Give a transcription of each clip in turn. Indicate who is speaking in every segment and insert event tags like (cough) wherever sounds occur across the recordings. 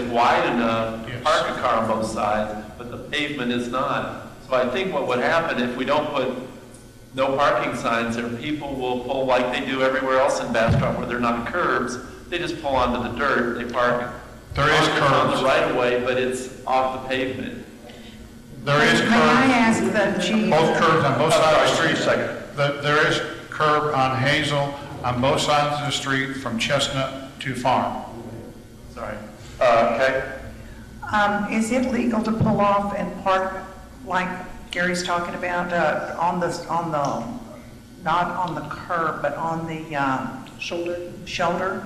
Speaker 1: wide enough to
Speaker 2: Yes.
Speaker 1: park a car on both sides, but the pavement is not. So I think what would happen if we don't put no parking signs there, people will pull like they do everywhere else in Bastrop where they're not curbs. They just pull onto the dirt, they park.
Speaker 2: There is
Speaker 1: on the- On the
Speaker 2: curbs.
Speaker 1: right of way, but it's off the pavement.
Speaker 2: There is
Speaker 3: May I
Speaker 2: curb,
Speaker 3: ask the chief,
Speaker 2: both curbs on
Speaker 4: Oh,
Speaker 2: both sides of
Speaker 1: Sorry,
Speaker 2: the
Speaker 1: just a
Speaker 2: street.
Speaker 1: second.
Speaker 2: The- There is curb on Hazel on both sides of the street from Chestnut to Farm.
Speaker 1: Sorry. Uh, okay.
Speaker 3: um, is it legal to pull off and park like Gary's talking about, uh, on the, on the, not on the curb, but on the, um. Shoulder? Shoulder?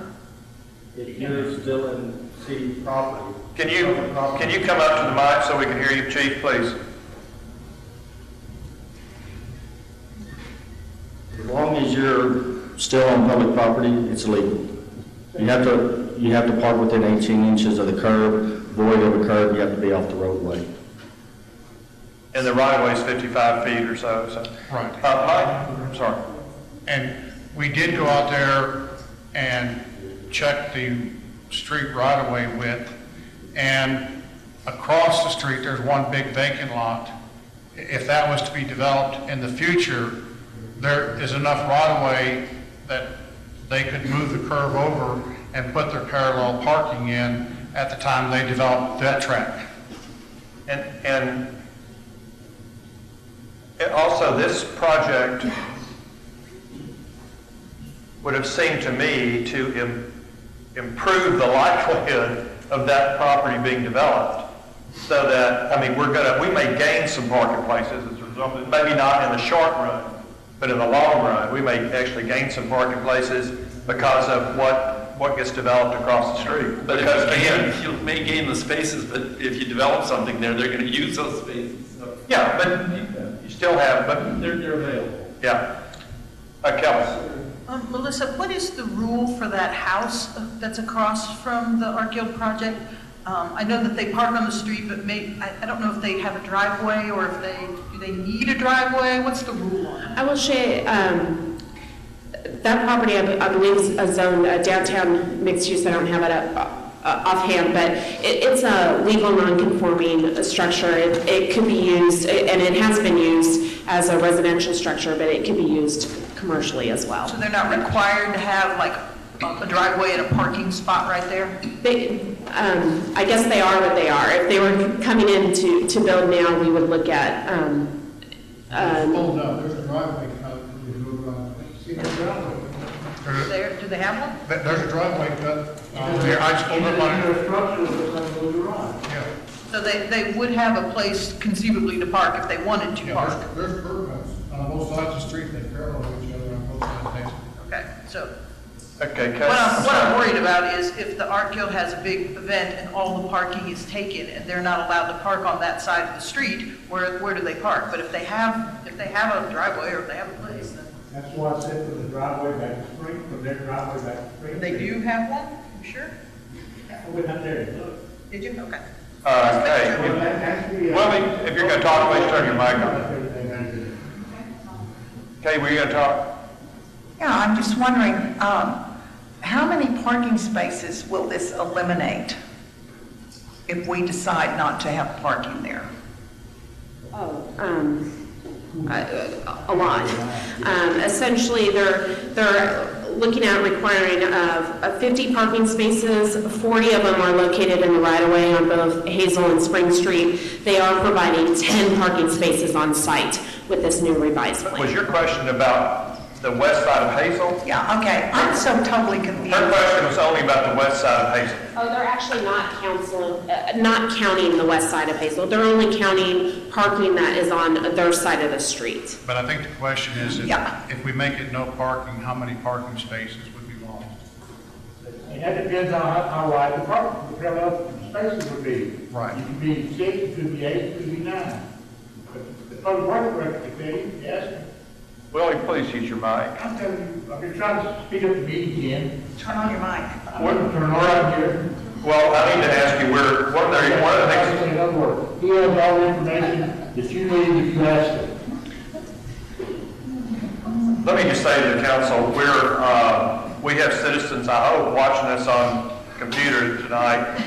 Speaker 5: If you're still in city property.
Speaker 4: Can you, can you come up to the mic so we can hear you, chief, please?
Speaker 5: As long as you're still on public property, it's legal. You have to, you have to park within 18 inches of the curb, void of a curb, you have to be off the roadway.
Speaker 4: And the right of way is 55 feet or so, so.
Speaker 2: Right.
Speaker 4: Uh, Mike, I'm sorry.
Speaker 2: And we did go out there and check the street right-of-way width, and across the street, there's one big vacant lot. I- If that was to be developed in the future, there is enough right-of-way that they could move the curve over and put their parallel parking in at the time they develop that track.
Speaker 4: And, and it- also, this project would have seemed to me to im- improve the (laughs) likelihood of that property being developed. So that, I mean, we're gonna, we may gain some parking places as a result, of it. maybe not in the short run, but in the long run, we may actually gain some parking places because of what, what gets developed across the street.
Speaker 1: But
Speaker 4: Because
Speaker 1: if you
Speaker 4: again,
Speaker 1: gain, you may gain the spaces, but if you develop something there, they're gonna use those spaces, so
Speaker 4: Yeah, but you still have, but
Speaker 1: they're, they're available.
Speaker 4: Yeah. Uh, Kelly?
Speaker 6: Um, Melissa, what is the rule for that house uh, that's across from the Art Guild project? Um, I know that they park on the street, but may, I, I don't know if they have a driveway or if they, do they need a driveway? What's the rule on it?
Speaker 7: I will say, um, that property, I be- I believe, is a zone, a downtown mixed use, I don't have it up, uh, offhand, but it, it's a legal non-conforming uh, structure. It, it could be used, and it has been used as a residential structure, but it can be used commercially as well.
Speaker 6: So they're not required to have like a a driveway and a parking spot right there?
Speaker 7: They, um, I guess they are what they are. If they were coming in to, to build now, we would look at, um, um,
Speaker 8: Oh, no, there's a driveway cut, there's no driveway. See, there's a driveway.
Speaker 2: There's a-
Speaker 6: There, do they have one?
Speaker 2: there- There's a driveway cut uh, there, I just pulled up on it,
Speaker 8: There's a structure that's on the garage.
Speaker 2: yeah.
Speaker 6: So they, they would have a place conceivably to park if they wanted to
Speaker 2: Yeah,
Speaker 6: park?
Speaker 2: there's, there's curb cuts on both sides of the street, they parallel each other on both sides. of the street.
Speaker 6: Okay, so
Speaker 4: Okay, Kelly.
Speaker 6: What I'm, what I'm
Speaker 4: sorry.
Speaker 6: worried about is if the art guild has a big event and all the parking is taken and they're not allowed to park on that side of the street, where, where do they park? But if they have, if they have a driveway or if they have a place, then
Speaker 8: That's why I said from the driveway back to Spring, from their driveway back to Spring.
Speaker 6: they do have one, you sure?
Speaker 8: I went out there and looked.
Speaker 6: Did you? Okay.
Speaker 4: Uh, okay.
Speaker 8: Well, that- actually, uh,
Speaker 4: Well, I mean, if you're gonna talk, please turn your mic on.
Speaker 8: Everything I did.
Speaker 4: Kay, were you gonna talk?
Speaker 3: Yeah, I'm just wondering, um, how many parking spaces will this eliminate if we decide not to have parking there?
Speaker 7: Oh, um, a a lot. Um, Essentially, they're, they're looking at requiring of of 50 parking spaces, 40 of them are located in the right-of-way on both Hazel and Spring Street. They are providing 10 parking spaces on site with this new revised plan.
Speaker 4: Was your question about the west side of Hazel?
Speaker 3: Yeah, okay, I'm so totally
Speaker 4: Her
Speaker 3: confused.
Speaker 4: question was only about the west side of Hazel.
Speaker 7: Oh, they're actually not counseling, uh, not counting the west side of Hazel. They're only counting parking that is on their side of the street.
Speaker 2: But I think the question is, if,
Speaker 3: Yeah.
Speaker 2: if we make it no parking, how many parking spaces would be lost?
Speaker 8: And that depends on how- how wide the park, the parallel spaces would be.
Speaker 2: Right.
Speaker 8: You could be six, you could be eight, you could be nine. But The public works director committee, yes,
Speaker 4: Willie, please use your mic.
Speaker 8: I'm telling you, I've been trying to speed up the meeting again.
Speaker 3: Turn on your mic.
Speaker 8: What, turn around here.
Speaker 4: Well, I need to ask you, we're, one of the, one of the things,
Speaker 8: In other words, He has all the information that you need if you ask him.
Speaker 4: let me just say to the council, we're, uh, we have citizens, I hope, watching us on computers tonight